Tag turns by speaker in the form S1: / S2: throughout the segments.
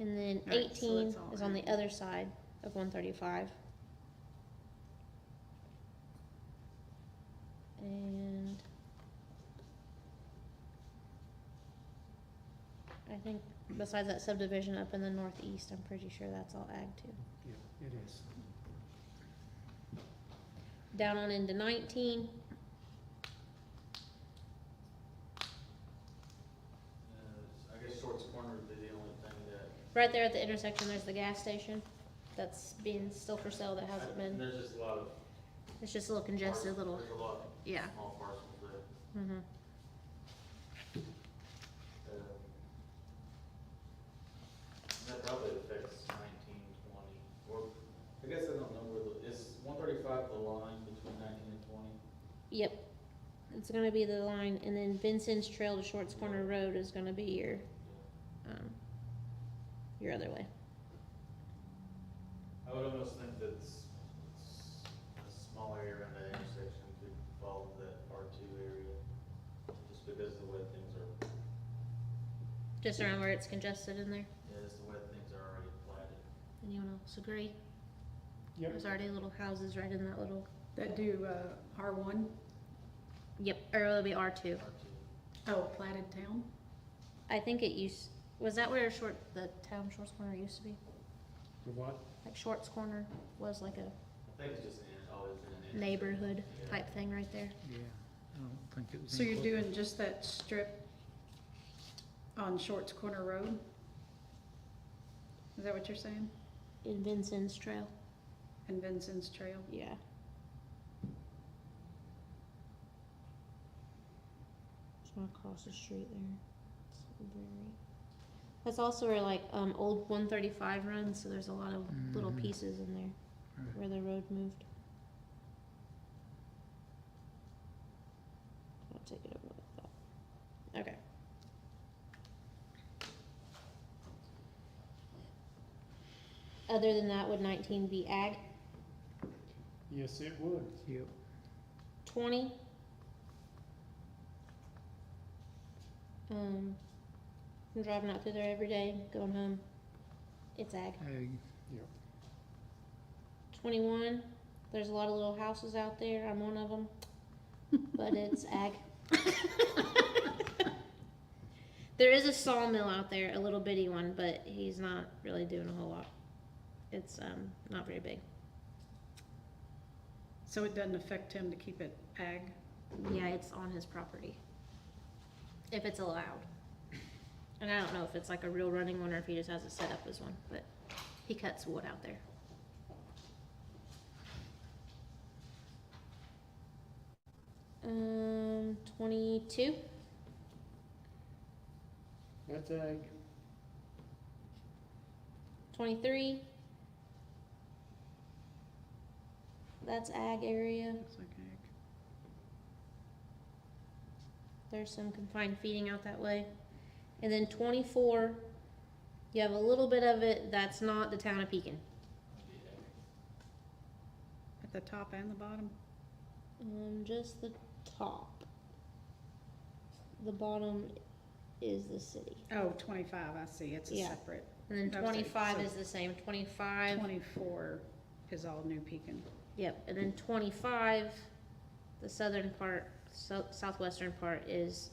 S1: And then
S2: Right, so
S1: eighteen
S2: that's all
S1: is on the
S2: in.
S1: other side of one thirty-five. And I think besides that subdivision up in the northeast, I'm pretty sure that's all ag too.
S3: Yeah, it is.
S1: Down on into nineteen,
S4: Uh, I guess Shorts Corner would be the only thing that.
S1: right there at the intersection, there's the gas station that's being still for sale that hasn't been,
S4: There's just a lot of.
S1: it's just a little congested
S4: parcels.
S1: little,
S4: There's a lot of
S1: yeah,
S4: small parcels that,
S1: mhm.
S4: uh, that probably affects nineteen, twenty, or, I guess I don't know where the, is one thirty-five the line between nineteen and twenty?
S1: Yep. It's gonna be the line, and then Vincent's Trail to Shorts Corner Road is gonna be your, um, your other way.
S4: I would almost think that s- s- a small area around that intersection could follow that R two area, just because of the way things are,
S1: Just around where it's congested in there.
S4: yeah, just the way things are already platted.
S1: Anyone else agree?
S3: Yep.
S1: There's already little houses right in that little,
S2: That do, uh, R one,
S1: yep, or it'll be R two.
S4: R two.
S2: oh, platted town?
S1: I think it used, was that where Short, the town Shorts Corner used to be?
S3: The what?
S1: Like Shorts Corner was like a
S4: I think it's just an, always been an. intersection.
S1: neighborhood
S4: Yeah.
S1: type thing right there.
S3: Yeah, I don't think it was.
S2: So you're
S3: included.
S2: doing just that strip on Shorts Corner Road? Is that what you're saying?
S1: In Vincent's Trail,
S2: And Vincent's Trail?
S1: yeah. It's not across the street there. It's very- That's also where like um old one thirty five runs, so there's a lot of little
S3: Mhm.
S1: pieces in there
S3: Right.
S1: where the road moved. I'll take it over like that. Okay. Other than that, would nineteen be ag?
S3: Yes, it would. Yep.
S1: 20. Um, I'm driving out through there every day, going home. It's ag.
S3: Ag.
S1: 21. There's a lot of little houses out there. I'm one of them, but it's ag. there is a sawmill out there, a little bitty one, but he's not really doing a whole lot. It's um, not very big.
S2: So it doesn't affect him to keep it ag?
S1: Yeah, it's on his property. If it's allowed. And I don't know if it's like a real running one or if he just has it set up as one, but he cuts wood out there. Um, twenty-two?
S3: That's ag.
S1: 23. That's ag area.
S2: Looks like ag.
S1: There's some confined feeding out that way. And then 24, you have a little bit of it that's not the town of Pekin.
S2: At the top and the bottom?
S1: Um, just the top. The bottom is the city.
S2: Oh, twenty-five, I see, it's a
S1: Yeah.
S2: separate.
S1: And then
S2: Okay,
S1: 25
S2: so-
S1: is the same. 25.
S2: Twenty-four is all New Pekin.
S1: Yep. And then 25, the southern part, so, southwestern part is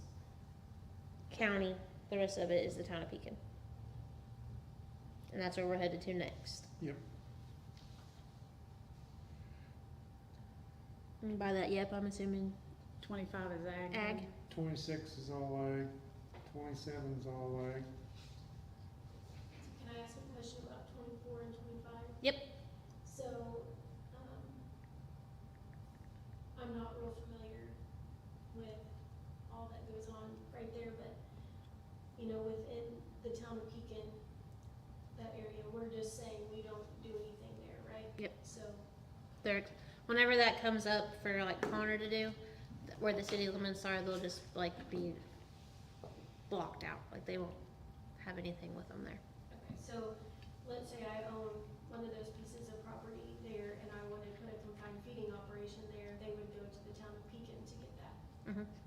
S1: county. The rest of it is the town of Pekin. And that's where we're headed to next.
S3: Yep.
S1: And by that, yep, I'm assuming
S2: Twenty-five is ag. then?
S1: ag.
S3: Twenty-six is all ag. Twenty-seven is all ag.
S5: Can I ask a question about twenty-four and twenty-five?
S1: Yep.
S5: So, um, I'm not real familiar with all that goes on right there, but, you know, within the town of Pekin, that area, we're just saying we don't do anything there, right?
S1: Yep.
S5: So,
S1: There, whenever that comes up for like Connor to do, th- where the city limits are, they'll just like be blocked out, like they won't have anything with them there.
S5: okay, so, let's say I own one of those pieces of property there, and I wanted to put a confined feeding operation there, they would go to the town of Pekin to get that.
S1: Mhm.